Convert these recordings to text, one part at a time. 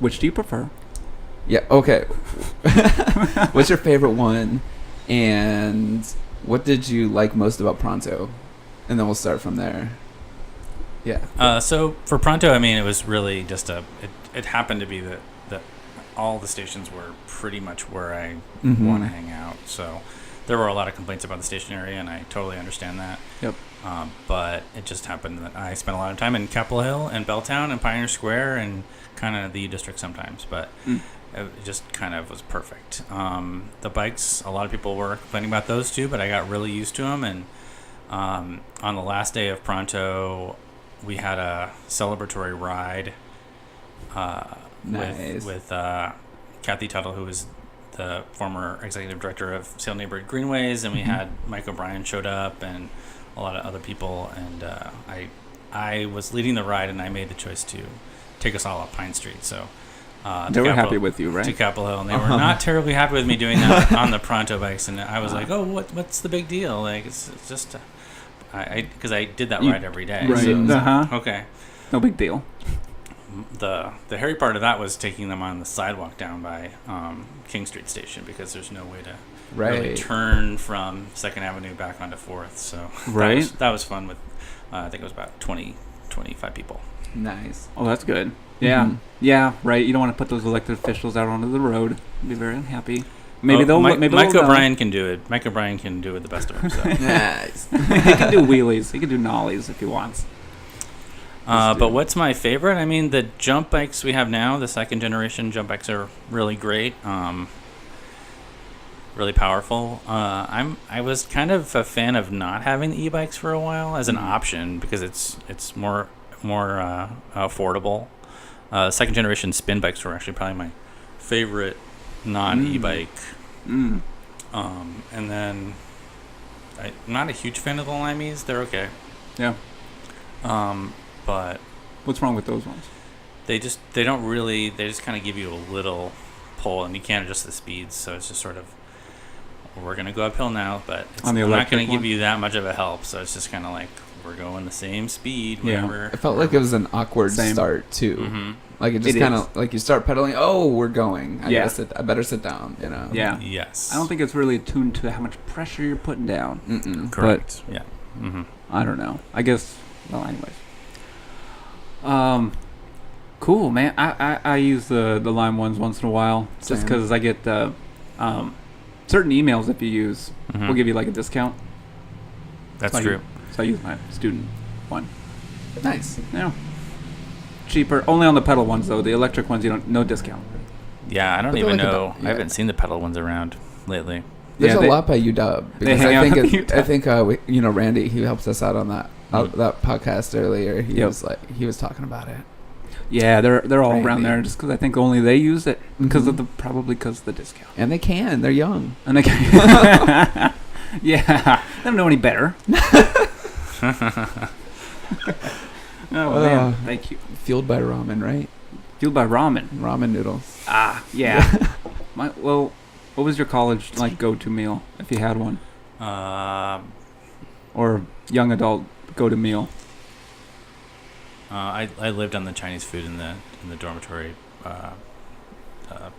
Which do you prefer? Yeah. Okay. What's your favorite one? And what did you like most about Pronto? And then we'll start from there. Yeah. Uh, so for Pronto, I mean, it was really just a. It, it happened to be that that all the stations were pretty much where I Mm-hmm. Mhm. want to hang out. So there were a lot of complaints about the station area, and I totally understand that. Yep. Um, but it just happened that I spent a lot of time in Capitol Hill and Belltown and Pioneer Square and kind of the U District sometimes, but Mm. it just kind of was perfect. Um, the bikes, a lot of people were complaining about those too, but I got really used to them. And um, on the last day of Pronto, we had a celebratory ride uh, Nice. with, with uh, Kathy Tuttle, who was the former executive director of Sale Neighborhood Greenways, and we Mm-hmm. Mhm. had Mike O'Brien showed up and a lot of other people. And uh, I, I was leading the ride, and I made the choice to take us all up Pine Street. So uh, They the were Capitol- happy with you, to right? Capitol Hill, and they Uh-huh. were not terribly happy with me doing that on the Pronto bikes. And I was Uh. like, "Oh, what? What's the big deal? Like, it's, it's just, uh, I because I, did that You- ride every day. Right. So- Uh huh. Okay. No big deal. The the hairy part of that was taking them on the sidewalk down by um, King Street Station because there's no way to really Right. turn from Second Avenue back onto Fourth. So that Right. was, that was fun with uh, I think it was about 20, 25 people. Nice. Oh, that's good. Yeah. Mhm. Yeah. Right. You don't want to put those elected officials out onto the road. Be very unhappy. Maybe Oh, they'll. Mi- maybe Mike they'll uh, know. O'Brien can do it. Mike O'Brien can do it the best of himself. nice. he can do wheelies. He can do nollies if he wants. Uh, Let's do but it. what's my favorite? I mean, the jump bikes we have now, the second generation jump bikes are really great, um, really powerful. Uh, I'm I was kind of a fan of not having the e-bikes for a while as an Mhm. option because it's it's more more uh, affordable. Uh, second generation spin bikes were actually probably my favorite non e-bike. Mm. Um, and then I, I'm not a huge fan of the Limeys. They're okay. Yeah. Um, but What's wrong with those ones? they just they don't really they just kind of give you a little pull and you can't adjust the speeds so it's just sort of we're gonna go uphill now but it's On the I'm not electric gonna give one? you that much of a help so it's just kind of like we're going the same speed Yeah. whenever It felt like it was an awkward Same. start too. hmm Like it just It kind is. of like you start pedaling. Oh, we're going. I Yeah. gotta sit. I better sit down. You know. Yeah. yes I don't think it's really attuned to how much pressure you're putting down. Mm-mm. correct yeah mm-hmm. I don't know. I guess. Well, anyways. Um, cool, man. I, I, I use the the Lime ones once in a while, just Same. because I get the um, certain emails if you use, Hmm. will give you like a discount. Mm-hmm. that's like- true So I use my student one. Nice. Yeah. Cheaper. Only on the pedal ones though. The electric ones, you don't no discount. yeah I But don't they're even like a know bu- yeah. I haven't seen the pedal ones around lately There's Yeah, a they- lot by UW because hang I out think at it, UW. I think uh, we, you know Randy he helps us out on that uh, Mhm. that podcast earlier. He Mm. Yep. was like he was talking about it. Yeah, they're they're all around Maybe. there just because I think only they use it because of Mhm. the probably because of the discount. and they can. They're young. And they can- yeah, they don't know any better. oh Uh. man, thank you. Fueled by ramen, right? Fueled by ramen. Ramen noodles. Ah, yeah. My well, what was your college like go-to meal if you had one, uh, or young adult go-to meal? Uh, I, I lived on the Chinese food in the in the dormitory uh, uh,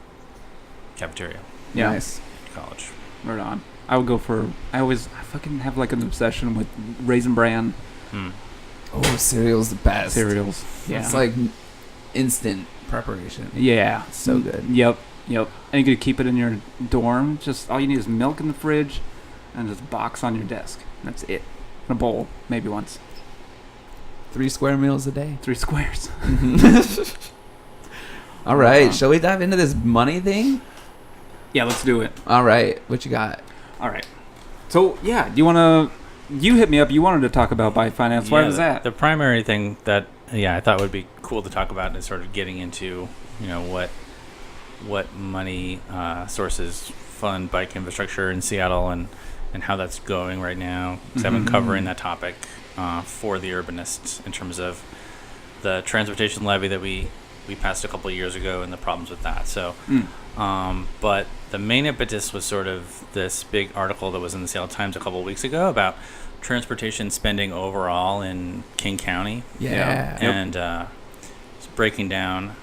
cafeteria Yeah, Nice. at college. right on. I would go for. I always I fucking have like an obsession with raisin bran Hmm. Oh, cereal's the best. cereals. Yeah, It's like instant preparation. yeah, So good. Yep, yep. And you could keep it in your dorm. Just all you need is milk in the fridge, and just box on your desk. That's it. And a bowl, maybe once. Three square meals a day. Three squares. All Mm-hmm. right, Wow. shall we dive into this money thing? yeah, let's do it. All right, what you got? All right. So yeah, do you wanna? You hit me up. You wanted to talk about bike finance. Why Yeah, was the- that? The primary thing that yeah I thought would be cool to talk about is sort of getting into you know what what money uh, sources fund bike infrastructure in Seattle and and how that's going right now. 'cause I've been Mhm. covering that topic uh, for the urbanists in terms of the transportation levy that we we passed a couple of years ago and the problems with that. So. Mm. Um, but the main impetus was sort of this big article that was in the Seattle Times a couple of weeks ago about transportation spending overall in King County. Yeah. Yeah. Yep. And uh, it's breaking down